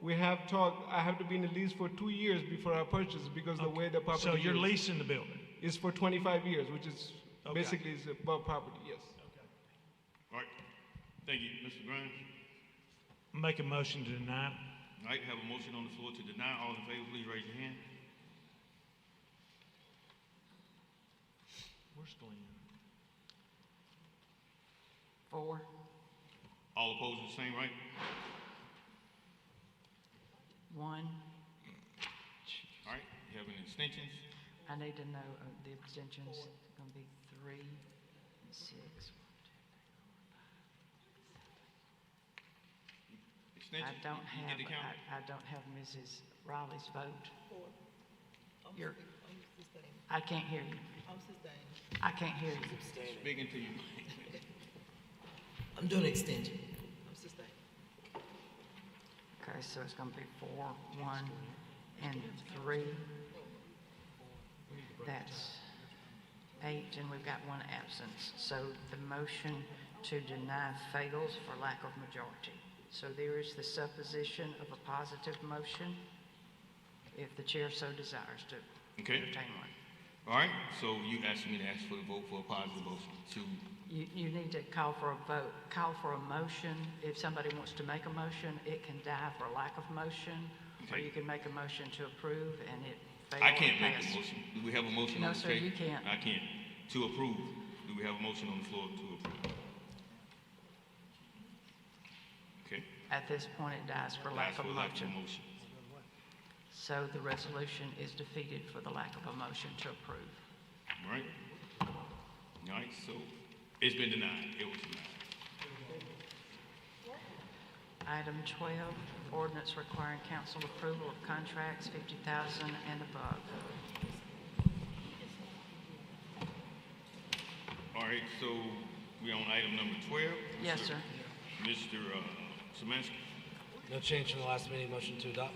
We have talked, I have to be in the lease for two years before I purchase because the way the So property you're is. leasing the building? Is for twenty-five years, which is Okay. basically is above property, yes. All right, thank you, Mr. Grimes. Make a motion to deny. All right, have a motion on the floor to deny. All in favor, please raise your hand. Where's Glenn? Four. All opposed, the same, right? One. All right, you have any extensions? I need to know uh, the abstentions, gonna be three and six. I Extensions? don't You have, Get the count? I, I don't have Mrs. Riley's vote. You're, I can't hear you. I can't hear you. Speaking to you. I'm doing extension. Okay, so it's gonna be four, one, and three. That's eight, and we've got one absence. So the motion to deny fails for lack of majority. So there is the supposition of a positive motion, if the chair so desires to Okay, entertain one. all right, so you asked me to ask for the vote for a positive motion to, You, you need to call for a vote, call for a motion. If somebody wants to make a motion, it can die for lack of motion, or Okay. you can make a motion to approve and it fails. I can't make the motion. Do we have a motion No, on the sir, table? you can't. I can't. To approve, do we have a motion on the floor to approve? Okay. At this point, it dies for lack Last of for lack of motion. motion. So the resolution is defeated for the lack of a motion to approve. All right? All right, so it's been denied. It was denied. Item 12, ordinance requiring council approval of contracts 50,000 and above. All right, so we're on item number 12. Yes, sir. Mr. uh, Samansky. No change from the last meeting, motion to adopt.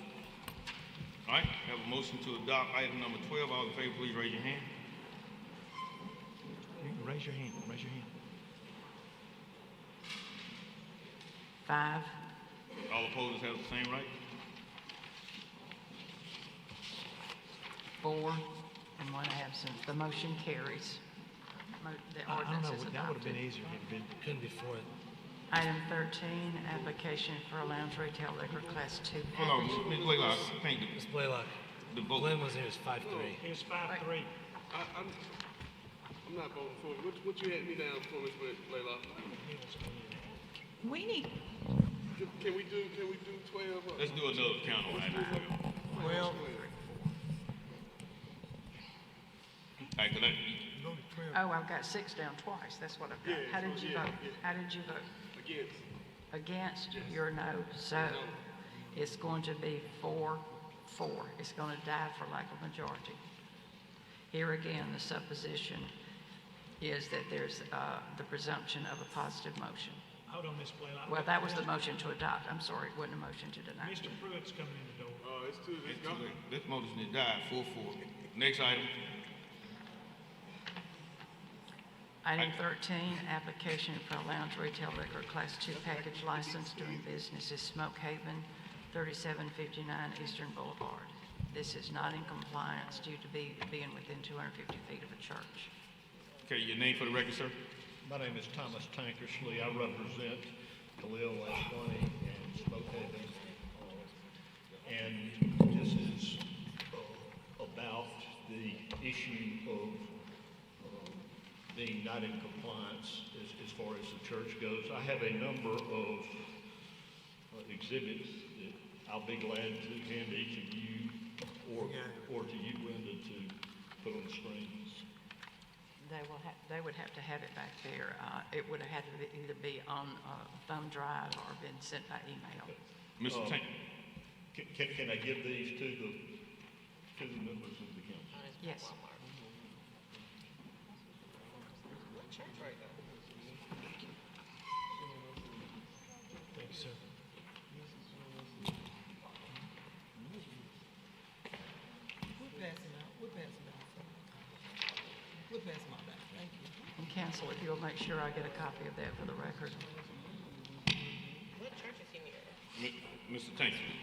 All right, have a motion to adopt item number 12. All in favor, please raise your hand. You can Raise your hand, raise your hand. Five, All opposed have the same right. four, and one absent. The motion carries. Mo- The I I don't ordinance know, is adopted. that would have been easier had it been, Couldn't be for it. Item 13, application for a lounge retail liquor class 2 Hold on, package. Ms. Blaylock, thank you. Ms. Blaylock, The vote. Glenn was here, it was five, three. it was five, three. I, I'm, I'm not voting for it. What, what you had me down for, Ms. Blaylock? We need, Can- Can we do, can we do twelve? or- Let's do another count on item 12. All Well. right, could I, Oh, I've got six down twice, that's what I've got. Yeah, How so did you yeah, vote? yeah. How did you vote? Against. Against, your no. So it's going to be four, four. It's going to die for lack of majority. Here again, the supposition is that there's uh, the presumption of a positive motion. Hold on, Ms. Blaylock. Well, that was the motion to adopt, I'm sorry, it wasn't a motion to deny. Mr. Pruitt's coming in the door. Oh, it's too, it's it's too gone. late. This motion is died, 4-4. Next item. Item 13, application for a lounge retail liquor class 2 package license doing business as Smoke Haven, 3759 Eastern Boulevard. This is not in compliance due to be, being within 250 feet of a church. Okay, your name for the record, sir? My name is Thomas Tankersley. I represent Khalil Ashwani and Smokehaven. Uh, And this is uh, about the issue of um, being not in compliance as, as far as the church goes. I have a number of uh, exhibits that I'll be glad to hand each of you or, or to you, Brenda, to put on the screen. They will have, they would have to have it back there. Uh, It would have had to be- either be on a thumb drive or been sent by email. Mr. Tank. Can, can can I give these to the, to the members of the council? Yes. Thank you, sir. we're passing out, we're passing out. We're passing out, thank you. And counsel, if you'll make sure I get a copy of that for the record. What church is he near? Mi- Mr. Tank.